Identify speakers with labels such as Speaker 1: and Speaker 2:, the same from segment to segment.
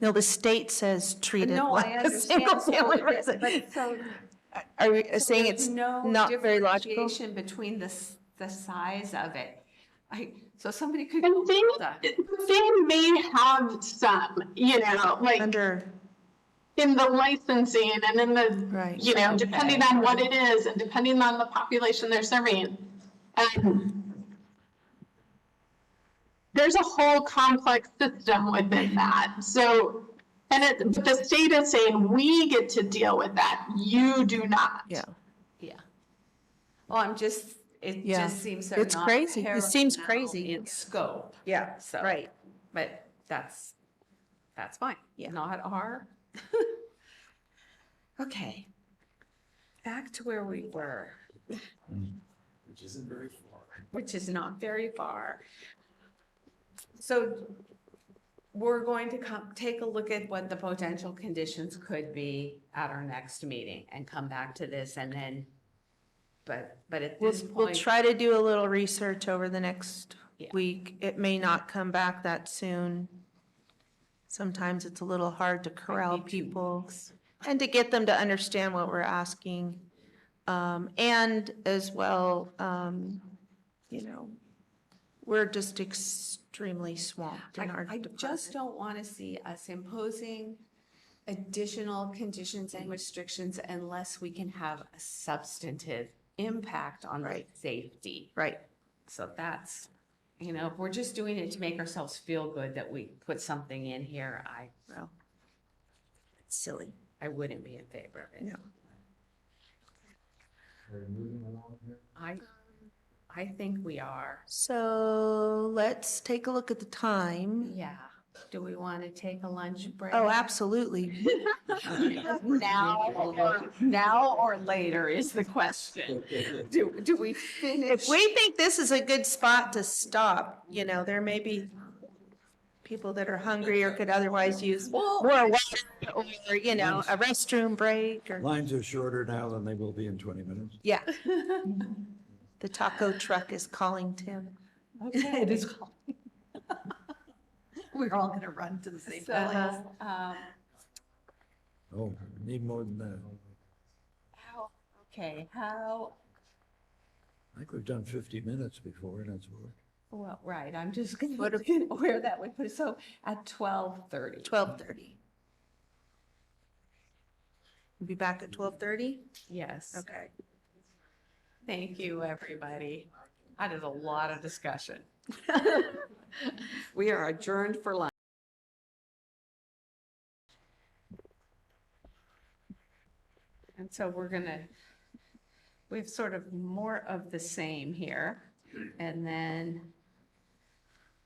Speaker 1: No, the state says treat it
Speaker 2: No, I
Speaker 1: like a
Speaker 2: understand. So
Speaker 1: single-family
Speaker 2: it-
Speaker 1: residence.
Speaker 2: but so-
Speaker 1: Are we saying
Speaker 2: there's
Speaker 1: it's
Speaker 2: no
Speaker 1: not very logical?
Speaker 2: differentiation Between the, s- the size of it. I, so somebody could.
Speaker 3: And they,
Speaker 2: build a-
Speaker 3: they may have some, you know, like
Speaker 1: Under,
Speaker 3: in the licensing and in the,
Speaker 1: Right.
Speaker 3: you know, depending on what it is and depending on the population they're serving. Um, There's a whole complex system within that, so, and it, but the state is saying, we get to deal with that, you do not.
Speaker 1: yeah,
Speaker 2: Yeah. Well, I'm just, it
Speaker 1: Yeah.
Speaker 2: just seems they're
Speaker 1: It's
Speaker 2: not
Speaker 1: crazy. It seems
Speaker 2: parallel
Speaker 1: crazy.
Speaker 2: In scope.
Speaker 1: Yeah,
Speaker 2: So-
Speaker 1: right.
Speaker 2: But that's, that's fine.
Speaker 1: Yeah.
Speaker 2: Not our. Okay. Back to where we were,
Speaker 4: which isn't very far.
Speaker 2: which is not very far. So we're going to come, take a look at what the potential conditions could be at our next meeting and come back to this and then, but, but at
Speaker 1: We'll,
Speaker 2: this
Speaker 1: we'll
Speaker 2: point.
Speaker 1: try to do a little research over the next
Speaker 2: Yeah.
Speaker 1: week. It may not come back that soon. Sometimes it's a little hard to corral
Speaker 2: be two
Speaker 1: people
Speaker 2: weeks.
Speaker 1: and to get them to understand what we're asking. Um, and as well, um, you know, we're just extremely swamped in
Speaker 2: I,
Speaker 1: our
Speaker 2: I just
Speaker 1: department.
Speaker 2: don't want to see us imposing additional conditions and restrictions unless we can have a substantive impact on the
Speaker 1: Right.
Speaker 2: safety.
Speaker 1: Right,
Speaker 2: So that's, you know, if we're just doing it to make ourselves feel good that we put something in here, I,
Speaker 1: well, it's silly.
Speaker 2: I wouldn't be in favor of it.
Speaker 1: No.
Speaker 4: Are we moving along here?
Speaker 2: I, I think we are.
Speaker 1: So let's take a look at the time.
Speaker 2: Yeah. Do we want to take a lunch break?
Speaker 1: Oh, absolutely.
Speaker 2: Now, or- now or later is the question. Do, do we finish?
Speaker 1: If we think this is a good spot to stop, you know, there may be people that are hungry or could otherwise use more water or, you know, a restroom break or,
Speaker 4: Lines are shorter now than they will be in 20 minutes.
Speaker 1: yeah. The taco truck is calling Tim.
Speaker 2: Okay.
Speaker 5: It is called. We're all gonna run to the same
Speaker 2: So,
Speaker 5: place.
Speaker 1: uh,
Speaker 2: um,
Speaker 4: Oh, need more than that.
Speaker 2: how- Okay, how,
Speaker 4: I think we've done 50 minutes before, and that's work.
Speaker 2: well, right, I'm just gonna look at where that would put, us. so at twelve thirty.
Speaker 1: Twelve thirty. Be back at twelve thirty?
Speaker 2: Yes,
Speaker 1: Okay.
Speaker 2: thank you, everybody. That is a lot of discussion. We are adjourned for lunch. And so we're gonna, we have sort of more of the same here. And then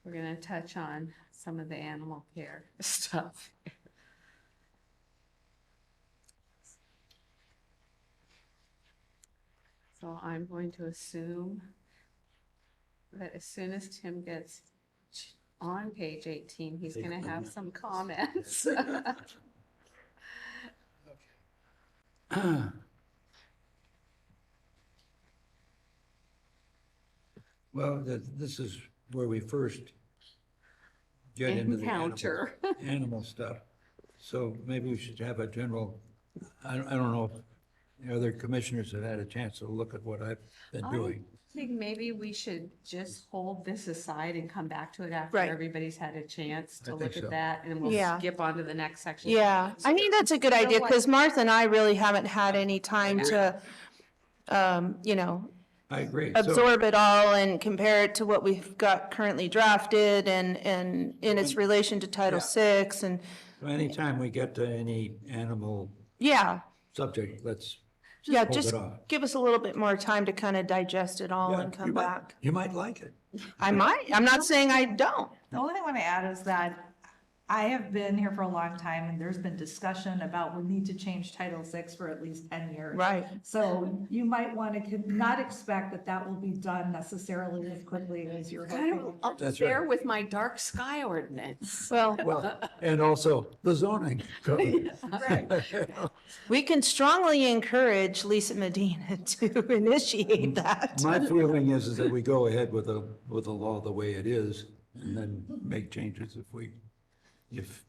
Speaker 2: we're gonna touch on some of the animal care stuff. So I'm going to assume that as soon as Tim gets on page 18, he's gonna have some comments.
Speaker 4: Well, th- this is where we first get into the animal-
Speaker 2: Encounter.
Speaker 4: animal stuff. So maybe we should have a general, I don't I don't know, if the other commissioners have had a chance to look at what I've been
Speaker 2: I-
Speaker 4: doing.
Speaker 2: I think maybe we should just hold this aside and come back to it after
Speaker 1: Right.
Speaker 2: everybody's had a chance
Speaker 4: I
Speaker 2: to
Speaker 4: think
Speaker 2: look
Speaker 4: so.
Speaker 2: at that, and we'll
Speaker 1: Yeah.
Speaker 2: skip on to the next section.
Speaker 1: Yeah, I think that's a good idea, because Martha and I really haven't had any time to, um, you know,
Speaker 4: I agree. So-
Speaker 1: absorb it all and compare it to what we've got currently drafted and, and in its relation to Title VI and,
Speaker 4: So Anytime we get to any animal
Speaker 1: yeah,
Speaker 4: subject, let's
Speaker 1: yeah,
Speaker 4: hold
Speaker 1: just
Speaker 4: it off.
Speaker 1: give us a little bit more time to kind of digest it all
Speaker 4: Yeah,
Speaker 1: and
Speaker 4: you
Speaker 1: come
Speaker 4: might-
Speaker 1: back.
Speaker 4: You might like it.
Speaker 1: I might, I'm not saying I don't.
Speaker 5: The only thing I want to add is that I have been here for a long time and there's been discussion about we need to change Title VI for at least ten years.
Speaker 1: Right.
Speaker 5: So you might want to not expect that that will be done necessarily as quickly as you're
Speaker 2: Kind
Speaker 5: hoping.
Speaker 2: of up
Speaker 4: That's right.
Speaker 2: there with my dark sky ordinance.
Speaker 1: Well,
Speaker 4: Well, and also the zoning. code.
Speaker 1: we can strongly encourage Lisa Medina to initiate that.
Speaker 4: My feeling is, is that we go ahead with the, with the law the way it is and then make changes if we, if